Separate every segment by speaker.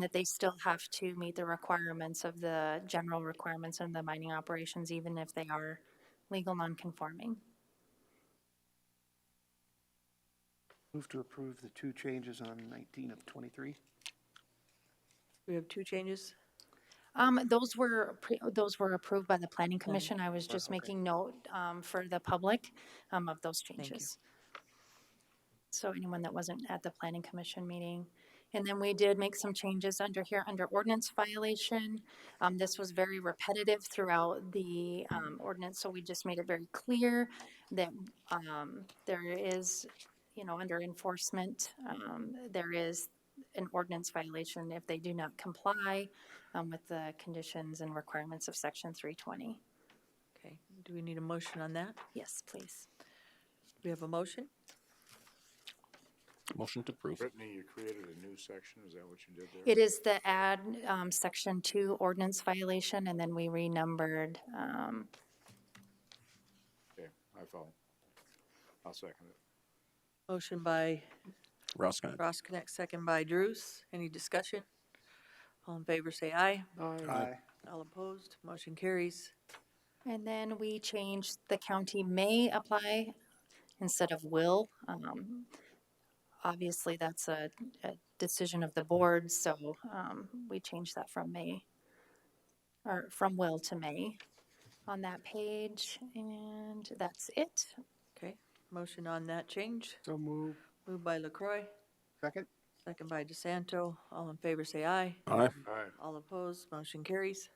Speaker 1: that they still have to meet the requirements of the general requirements of the mining operations, even if they are legal nonconforming.
Speaker 2: Move to approve the two changes on 19 of 23.
Speaker 3: We have two changes.
Speaker 1: Um, those were, pre- those were approved by the planning commission. I was just making note, um, for the public, um, of those
Speaker 3: you.
Speaker 1: changes. So anyone that wasn't at the planning commission meeting. And then we did make some changes under here, under ordinance violation. Um, this was very repetitive throughout the, um, ordinance, so we just made it very clear that, um, there is, you know, under enforcement, um, there is an ordinance violation if they do not comply, um, with the conditions and requirements of section three twenty.
Speaker 3: Okay, do we need a motion on that?
Speaker 1: Yes, please.
Speaker 3: We have a motion?
Speaker 4: Motion to approve.
Speaker 5: Brittany, you created a new section, is that what you did there?
Speaker 1: It is the add, um, section two ordinance violation, and then we renumbered, um,
Speaker 5: Okay, I follow. I'll second it.
Speaker 3: Motion by
Speaker 4: Roskine.
Speaker 3: Ross Connect, second by Drews. Any discussion? All in favor, say aye.
Speaker 2: Aye.
Speaker 3: All opposed, motion carries.
Speaker 1: and then we changed the county may apply instead of will. Um, obviously, that's a, a decision of the board, so, um, we changed that from may, or from will to may on that page, and that's it.
Speaker 3: Okay, motion on that change.
Speaker 2: So move.
Speaker 3: Moved by LaCroy,
Speaker 2: Second?
Speaker 3: second by DeSanto. All in favor, say aye.
Speaker 4: Aye.
Speaker 5: Aye,
Speaker 3: All opposed, motion carries.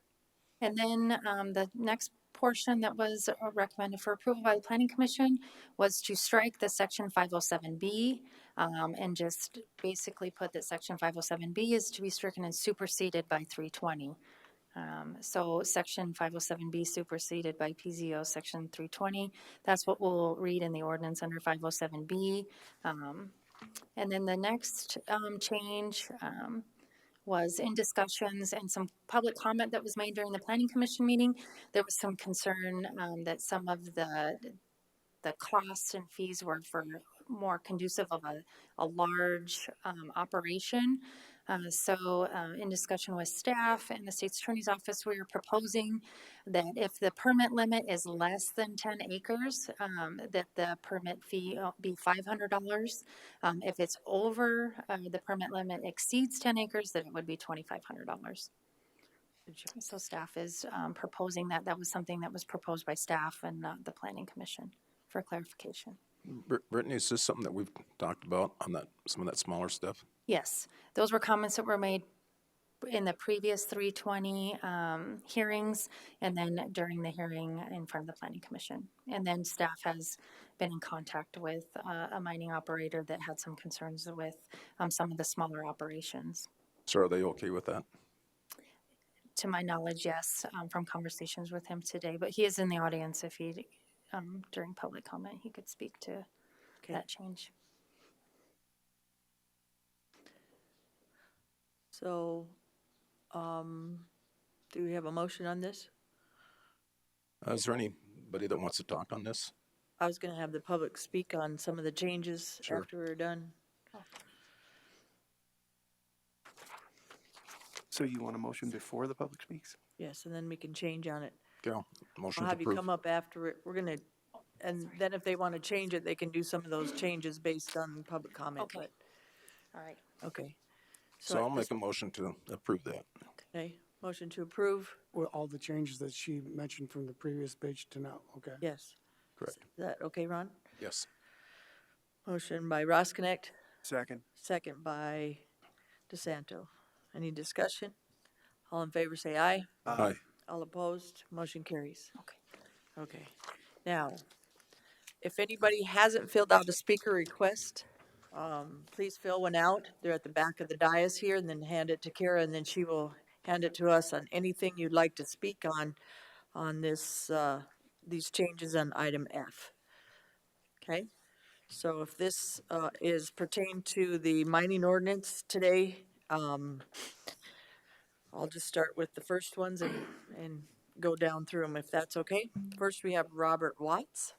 Speaker 1: And then um, the next portion that was uh, recommended for approval by the planning commission was to strike the section 507B um, and just basically put that section 507B is to be stricken and superseded by 320. Um, So section 507B superseded by PZO section 320. That's what we'll read in the ordinance under 507B. Um, And then the next um, change um, was in discussions and some public comment that was made during the planning commission meeting. There was some concern um, that some of the the costs and fees were for more conducive of a, a large um, operation. Uh, so, uh, in discussion with staff and the state's attorney's office, we are proposing that if the permit limit is less than 10 acres, um, that the permit fee uh, be $500. Um, if it's over, uh, the permit limit exceeds ten acres, then it would be twenty-five hundred dollars. So staff is, um, proposing that. That was something that was proposed by staff and not the planning commission for clarification.
Speaker 4: Br- Brittany, is this something that we've talked about on that, some of that smaller stuff?
Speaker 1: Yes, those were comments that were made in the previous three twenty, um, hearings and then during the hearing in front of the planning commission. And then staff has been in contact with, uh, a mining operator that had some concerns with, um, some of the smaller operations.
Speaker 4: So are they okay with that?
Speaker 1: to my knowledge, yes, um, from conversations with him today, but he is in the audience if he, um, during public comment, he could speak to
Speaker 3: Okay,
Speaker 1: that change.
Speaker 3: so, um, do we have a motion on this?
Speaker 4: Uh, Is there anybody that wants to talk on this?
Speaker 3: I was gonna have the public speak on some of the changes
Speaker 4: Sure.
Speaker 3: after we're done.
Speaker 2: So you want a motion before the public speaks?
Speaker 3: Yes, and then we can change on it.
Speaker 4: Carol,
Speaker 3: I'll
Speaker 4: motion to
Speaker 3: have you come up
Speaker 4: approve.
Speaker 3: after it. We're gonna, and then if they want to change it, they can do some of those changes based on public comment,
Speaker 1: Okay.
Speaker 3: but,
Speaker 1: All right.
Speaker 3: okay.
Speaker 4: So
Speaker 3: at
Speaker 4: I'll
Speaker 3: this-
Speaker 4: make a motion to approve that.
Speaker 3: Okay, motion to approve,
Speaker 6: Well, all the changes that she mentioned from the previous page to now, okay?
Speaker 3: yes.
Speaker 4: Correct.
Speaker 3: Is that okay, Ron?
Speaker 4: Yes.
Speaker 3: Motion by Ross Connect,
Speaker 2: Second.
Speaker 3: second by DeSanto. Any discussion? All in favor, say aye.
Speaker 4: Aye.
Speaker 3: All opposed, motion carries.
Speaker 1: Okay.
Speaker 3: Okay. Now, if anybody hasn't filled out a speaker request, um, please fill one out. They're at the back of the dais here, and then hand it to Kara, and then she will hand it to us on anything you'd like to speak on, on this, uh, these changes on item F. Okay? So if this uh, is pertained to the mining ordinance today, um, I'll just start with the first ones and, and go down through them if that's okay. First, we have Robert Watts.